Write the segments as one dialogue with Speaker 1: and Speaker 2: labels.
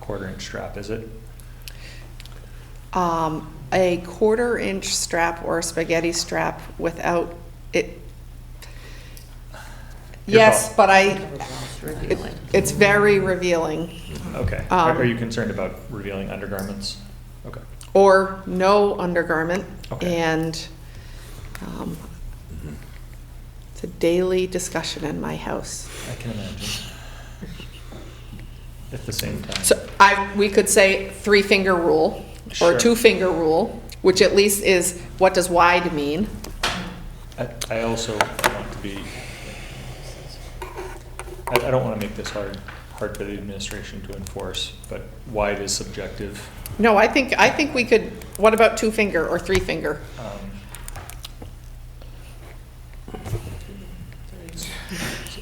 Speaker 1: quarter inch strap, is it?
Speaker 2: Um, a quarter inch strap or a spaghetti strap without it.
Speaker 1: Your
Speaker 2: Yes,
Speaker 1: call.
Speaker 2: but I, it- it's very revealing.
Speaker 1: Okay. Are
Speaker 2: Um,
Speaker 1: are you concerned about revealing undergarments? Okay.
Speaker 2: Or no undergarment.
Speaker 1: Okay.
Speaker 2: And, um, it's a daily discussion in my house.
Speaker 1: I can imagine. At the same time.
Speaker 2: So I, we could say three-finger rule, or
Speaker 1: Sure.
Speaker 2: two-finger rule, which at least is, what does wide mean?
Speaker 1: I- I also want to be, I I don't want to make this hard, hard for the administration to enforce, but wide is subjective.
Speaker 2: No, I think, I think we could, what about two-finger or three-finger?
Speaker 1: Um,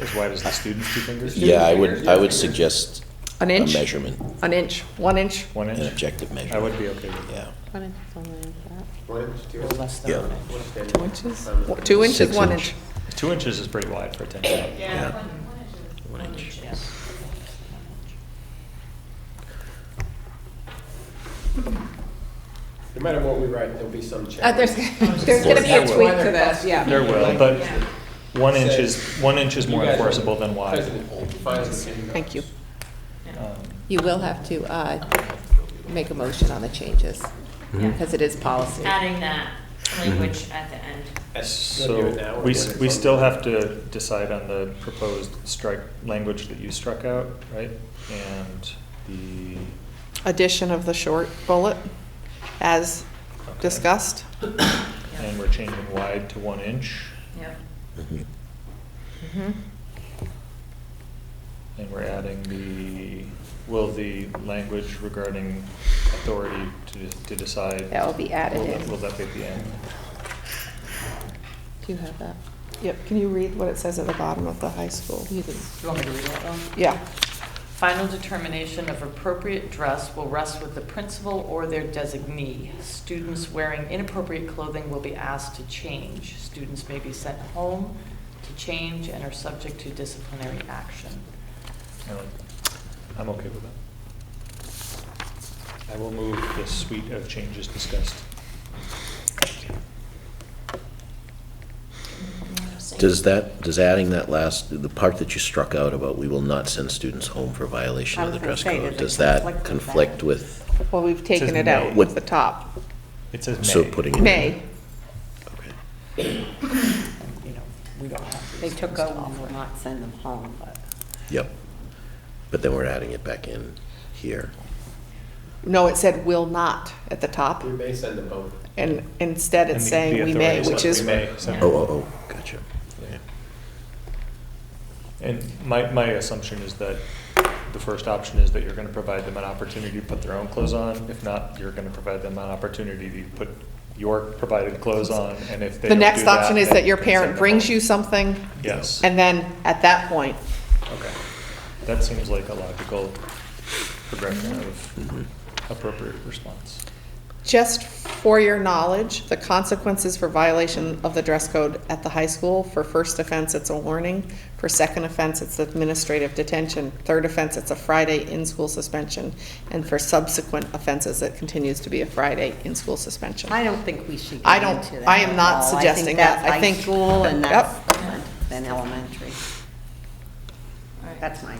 Speaker 1: As wide as the student's two fingers?
Speaker 3: Yeah, I would, I would suggest
Speaker 2: An
Speaker 3: a
Speaker 2: inch?
Speaker 3: measurement,
Speaker 2: An inch, one inch?
Speaker 1: One
Speaker 3: an
Speaker 1: inch?
Speaker 3: objective
Speaker 1: I
Speaker 3: measurement,
Speaker 1: would be okay with that.
Speaker 3: yeah.
Speaker 4: One inch is only like
Speaker 5: One inch, two
Speaker 4: that, or
Speaker 5: inch.
Speaker 4: less than
Speaker 3: Yeah.
Speaker 4: one inch.
Speaker 2: Two inches? What, Two inches,
Speaker 3: Six
Speaker 2: one
Speaker 3: inch.
Speaker 2: inch?
Speaker 1: Two inches is pretty wide for a ten club.
Speaker 3: Yeah.
Speaker 5: No matter what we write, there'll be some change.
Speaker 6: Uh, there's, there's gonna be a
Speaker 1: There
Speaker 6: tweak
Speaker 1: will.
Speaker 6: to this, yeah.
Speaker 1: There will, but one inch is, one inch is
Speaker 5: You
Speaker 1: more
Speaker 5: guys are-
Speaker 1: enforceable than wide.
Speaker 2: Thank you.
Speaker 1: Um,
Speaker 4: You will have to uh, make a motion on the changes,
Speaker 1: Mm-hmm.
Speaker 4: because it is policy.
Speaker 7: adding that Mm-hmm. language at the end.
Speaker 1: So we, s- we still have to decide on the proposed strike, language that you struck out, right? And the.
Speaker 2: Addition of the short bullet, as
Speaker 1: okay.
Speaker 2: discussed.
Speaker 1: And we're changing wide to one inch,
Speaker 7: Yep.
Speaker 3: Mhm.
Speaker 1: and we're adding the, will the language regarding authority to, to decide.
Speaker 4: That will be added
Speaker 1: will that-
Speaker 4: in.
Speaker 1: Will that be at the end?
Speaker 4: Do you have that?
Speaker 2: Yep, can you read what it says at the bottom of the high school?
Speaker 4: You can-
Speaker 8: Do you want me to read that though?
Speaker 2: Yeah.
Speaker 8: Final determination of appropriate dress will rest with the principal or their designee. Students wearing inappropriate clothing will be asked to change. Students may be sent home to change and are subject to disciplinary action.
Speaker 1: I like that. I'm okay with that. I will move the suite of changes discussed.
Speaker 3: Does that, does adding that last, the part that you struck out about we will not send students home for violation
Speaker 6: I
Speaker 3: of the
Speaker 6: was
Speaker 3: dress
Speaker 6: gonna say,
Speaker 3: code,
Speaker 6: does it
Speaker 3: does that
Speaker 6: conflict with
Speaker 3: conflict
Speaker 6: that?
Speaker 3: with,
Speaker 2: Well, we've taken
Speaker 1: says
Speaker 2: it out
Speaker 1: may.
Speaker 2: with the top.
Speaker 1: It says may.
Speaker 3: so putting it? in-
Speaker 2: May.
Speaker 3: Okay.
Speaker 8: You know, we don't have.
Speaker 6: They
Speaker 8: these
Speaker 6: took
Speaker 8: things
Speaker 6: out,
Speaker 8: off.
Speaker 6: will not send them home, but.
Speaker 3: Yep. But then we're adding it back in here.
Speaker 2: No, it said will not at the top,
Speaker 5: We may send them both.
Speaker 2: and instead
Speaker 1: And
Speaker 2: it's
Speaker 1: the-
Speaker 2: saying
Speaker 1: the
Speaker 2: we may,
Speaker 1: authority
Speaker 2: which
Speaker 1: says
Speaker 2: is,
Speaker 1: we may, so-
Speaker 7: Yeah.
Speaker 3: Oh, oh, oh, gotcha. Okay.
Speaker 1: And my, my assumption is that the first option is that you're gonna provide them an opportunity to put their own clothes on. If not, you're gonna provide them an opportunity to put your provided clothes on, and if they
Speaker 2: the
Speaker 1: don't do
Speaker 2: next option is
Speaker 1: then
Speaker 2: that your
Speaker 1: you can send
Speaker 2: parent
Speaker 1: them
Speaker 2: brings
Speaker 1: home.
Speaker 2: you something,
Speaker 1: Yes,
Speaker 2: and then at that point,
Speaker 1: okay. That seems like a logical progression of appropriate response.
Speaker 2: Just for your knowledge, the consequences for violation of the dress code at the high school, for first offense, it's a warning. For second offense, it's administrative detention. Third offense, it's a Friday in-school suspension. And for subsequent offenses, it continues to be a Friday in-school suspension.
Speaker 6: I don't think we should
Speaker 2: I
Speaker 6: get
Speaker 2: don't-
Speaker 6: into that.
Speaker 2: I am not
Speaker 6: at all.
Speaker 2: suggesting that. I think-
Speaker 6: that's high school and
Speaker 2: Yep.
Speaker 6: that's different than elementary.
Speaker 7: All right,
Speaker 6: That's my,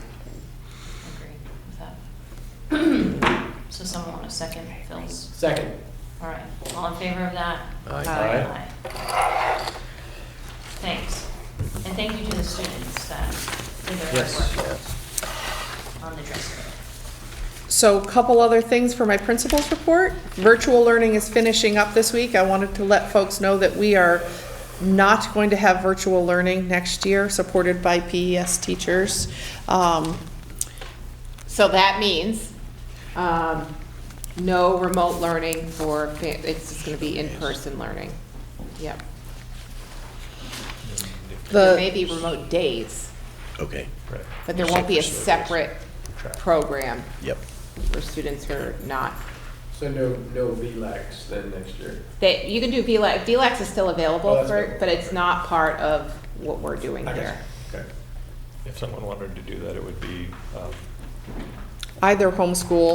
Speaker 7: agree with that. So someone want a second, Phil's?
Speaker 5: Second,
Speaker 7: All right, all in favor of that?
Speaker 3: Aye.
Speaker 1: Aye.
Speaker 7: Aye. Thanks. And thank you to the students that did their
Speaker 1: Yes.
Speaker 7: work on the dress code.
Speaker 2: So a couple other things for my principal's report. Virtual learning is finishing up this week. I wanted to let folks know that we are not going to have virtual learning next year, supported by PES teachers. Um,
Speaker 4: So that means um, no remote learning for, fa- it's just going to be in-person learning. Yep. There may
Speaker 2: The,
Speaker 4: be remote days,
Speaker 3: Okay,
Speaker 1: Right,
Speaker 4: but there won't be a
Speaker 3: Separate
Speaker 4: separate
Speaker 1: Track.
Speaker 4: program
Speaker 3: yep.
Speaker 4: for students who are not
Speaker 5: so no, no VLAX then next year.
Speaker 4: That, you can do VLAX, VLAX is still
Speaker 5: Oh,
Speaker 4: available
Speaker 5: that's
Speaker 4: for,
Speaker 5: available.
Speaker 4: but it's not part of what we're doing
Speaker 5: I got
Speaker 4: here.
Speaker 5: you. Okay.
Speaker 1: If someone wanted to do that, it would be, um,
Speaker 2: either homeschool